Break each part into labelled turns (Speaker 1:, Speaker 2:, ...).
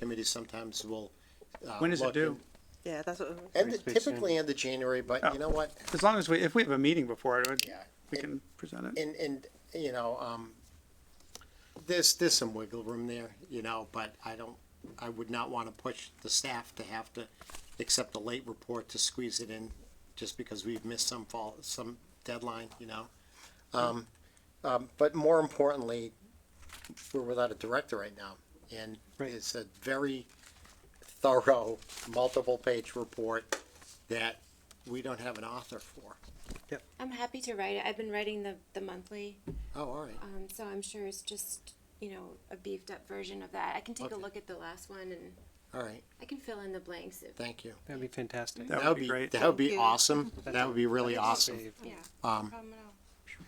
Speaker 1: committee sometimes will. uh,
Speaker 2: When is it
Speaker 1: look
Speaker 2: due?
Speaker 3: Yeah, that's what.
Speaker 1: in- End,
Speaker 2: Pretty soon. Oh.
Speaker 1: typically end of January, but you know what?
Speaker 2: As long as we, if we have a meeting before it, we-
Speaker 1: Yeah.
Speaker 2: we can present it.
Speaker 1: And, and, you know, um, there's, there's some wiggle room there, you know, but I don't, I would not want to push the staff to have to accept a late report to squeeze it in just because we've missed some fall, some deadline, you know? Um, um, but more importantly, we're without a director right now. And
Speaker 2: Right.
Speaker 1: it's a very thorough, multiple-page report that we don't have an author for.
Speaker 4: I'm happy to write it. I've been writing the, the monthly,
Speaker 1: Oh, all right.
Speaker 4: um, so I'm sure it's just, you know, a beefed up version of that. I can take a
Speaker 1: Okay.
Speaker 4: look at the last one and
Speaker 1: All right,
Speaker 4: I can fill in the blanks if,
Speaker 1: thank you.
Speaker 5: That'd be fantastic.
Speaker 2: That would be great.
Speaker 1: That would be
Speaker 3: Thank you.
Speaker 1: awesome. That would be really awesome.
Speaker 5: Save-
Speaker 4: yeah.
Speaker 1: Um,
Speaker 4: Problem at all.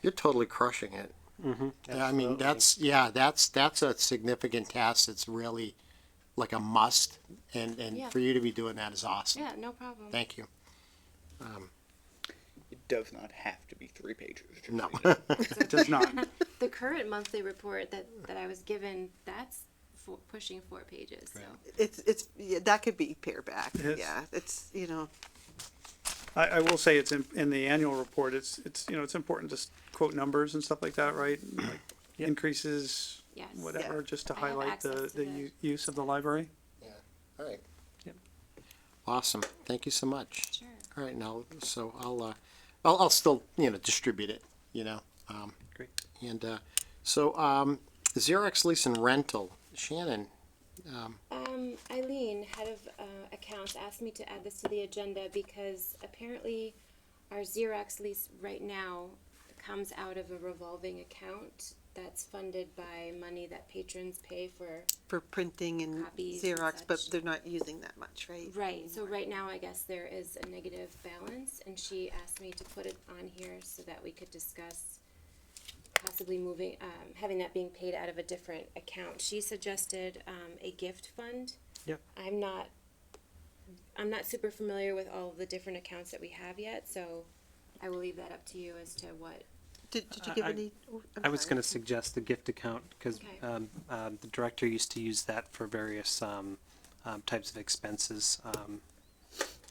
Speaker 1: you're totally crushing it.
Speaker 2: Mm-hmm.
Speaker 1: I mean, that's yeah, that's that's a significant task. It's really like a must, and and
Speaker 4: Yeah.
Speaker 1: for you to be doing that is awesome.
Speaker 4: Yeah, no problem.
Speaker 1: Thank you.
Speaker 6: It does not have to be three pages. to
Speaker 1: No.
Speaker 6: read it.
Speaker 2: It does not.
Speaker 4: The current monthly report that, that I was given, that's four, pushing four pages, so.
Speaker 3: It's, it's, yeah, that could be pared back.
Speaker 2: Yes.
Speaker 3: Yeah, it's, you know,
Speaker 2: I, I will say it's in, in the annual report, it's, it's, you know, it's important to s- quote numbers and stuff like that, right? Like Increases,
Speaker 4: Yes.
Speaker 2: whatever, just to
Speaker 4: I have
Speaker 2: highlight the,
Speaker 4: access to
Speaker 2: the
Speaker 4: that.
Speaker 2: u- use of the library.
Speaker 1: All right.
Speaker 2: Yep.
Speaker 1: Awesome. Thank you so much.
Speaker 4: Sure.
Speaker 1: All right, now so I'll uh, I'll, I'll still you know distribute it. You know. Um,
Speaker 2: Great.
Speaker 1: And uh, so um, Xerox lease and rental, Shannon.
Speaker 4: Um, Eileen, head of uh, accounts, asked me to add this to the agenda because apparently our Xerox lease right now comes out of a revolving account that's funded by money that patrons pay for.
Speaker 3: for printing and
Speaker 4: Copies and
Speaker 3: Xerox, but
Speaker 4: such.
Speaker 3: they're not using that much, right?
Speaker 4: Right, so right now I guess there is a negative balance and she asked me to put it on here so that we could discuss possibly moving, um, having that being paid out of a different account. She suggested, um, a gift fund.
Speaker 2: Yep.
Speaker 4: I'm not, I'm not super familiar with all of the different accounts that we have yet, so I will leave that up to you as to what,
Speaker 3: Did, did you
Speaker 5: I-
Speaker 3: give
Speaker 5: I-
Speaker 3: any? oh, I'm
Speaker 5: I was
Speaker 3: sorry.
Speaker 5: gonna suggest the gift account, because,
Speaker 4: Okay.
Speaker 5: um, um, the director used to use that for various, um, um, types of expenses, um,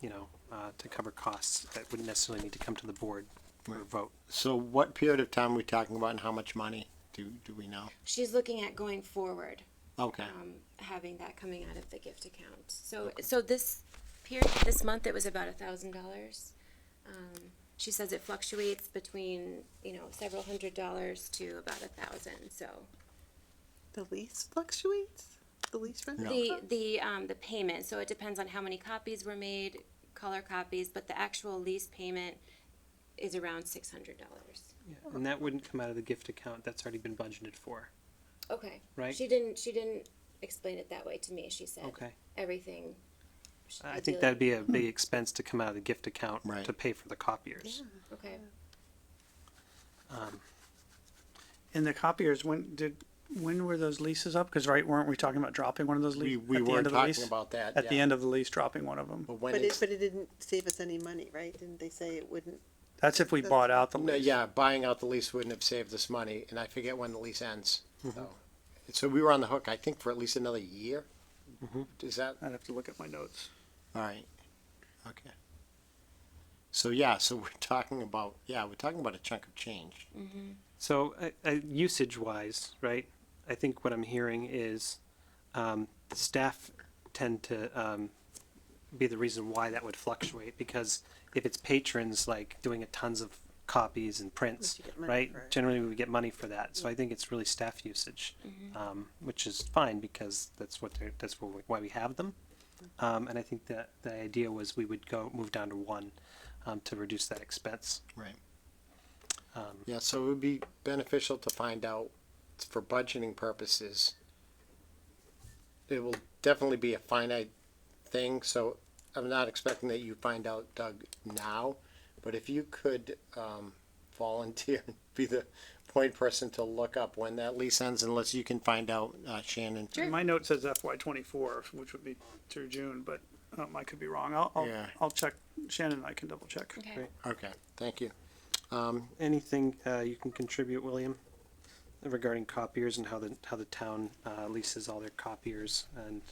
Speaker 5: you know, uh, to cover costs that wouldn't necessarily need to come to the board for a vote.
Speaker 1: So what period of time are we talking about, and how much money do do we know?
Speaker 4: she's looking at going forward.
Speaker 1: Okay.
Speaker 4: um, having that coming out of the gift account. So, so this period, this month, it was about a thousand dollars. Um, She says it fluctuates between, you know, several hundred dollars to about a thousand, so.
Speaker 3: The lease fluctuates? The lease rental?
Speaker 4: The, the, um, the payment, so it depends on how many copies were made, color copies, but the actual lease payment is around six hundred dollars.
Speaker 5: Yeah, And that wouldn't come out of the gift account, that's already been budgeted for.
Speaker 4: Okay.
Speaker 5: Right.
Speaker 4: She didn't, she didn't explain it that way to me, she said.
Speaker 5: Okay.
Speaker 4: Everything.
Speaker 5: I think that'd be a
Speaker 1: Hmm.
Speaker 5: big expense to come out of the gift account
Speaker 1: Right.
Speaker 5: to pay for the copiers. Um,
Speaker 4: Okay.
Speaker 2: And the copiers, when did, when were those leases up? Cause right, weren't we talking about dropping one of those
Speaker 1: We,
Speaker 2: leases?
Speaker 1: we were talking about that.
Speaker 2: At the
Speaker 1: yeah.
Speaker 2: end of the lease, dropping one of them.
Speaker 1: But when
Speaker 3: But it,
Speaker 1: it's-
Speaker 3: but it didn't save us any money, right? Didn't they say it wouldn't?
Speaker 2: That's if we bought out the
Speaker 1: No,
Speaker 2: lease.
Speaker 1: yeah, buying out the lease wouldn't have saved us money, and I forget when the lease ends.
Speaker 2: Mm-hmm.
Speaker 1: So, so we were on the hook, I think, for at least another year.
Speaker 2: Mm-hmm.
Speaker 1: Is that
Speaker 2: I'd have to look at my notes.
Speaker 1: all right? Okay. So yeah, so we're talking about yeah, we're talking about a chunk of change.
Speaker 5: So, uh, uh, usage wise, right? I think what I'm hearing is um, the staff tend to um, be the reason why that would fluctuate because if it's patrons like doing a tons of copies and prints,
Speaker 3: you get money
Speaker 5: right?
Speaker 3: for it.
Speaker 5: Generally, we get money for that. So I think it's really staff usage,
Speaker 3: Mm-hmm.
Speaker 5: um, which is fine because that's what they're, that's what we- why we have them.
Speaker 3: Mm-hmm.
Speaker 5: Um, and I think that the idea was we would go move down to one um, to reduce that expense.
Speaker 1: Right. Yeah, so it would be beneficial to find out for budgeting purposes. It will definitely be a finite thing, so I'm not expecting that you find out, Doug, now. But if you could, um, volunteer, and be the point person to look up when that lease ends unless you can find out, uh, Shannon.
Speaker 4: Sure.
Speaker 2: My note says FY twenty-four, which would be through June, but um, I could be wrong. I'll, I'll,
Speaker 1: Yeah.
Speaker 2: I'll check. Shannon and I can double check.
Speaker 4: Okay.
Speaker 5: Great.
Speaker 1: Okay, thank you.
Speaker 5: Anything uh, you can contribute, William? regarding copiers and how the, how the town, uh, leases all their copiers and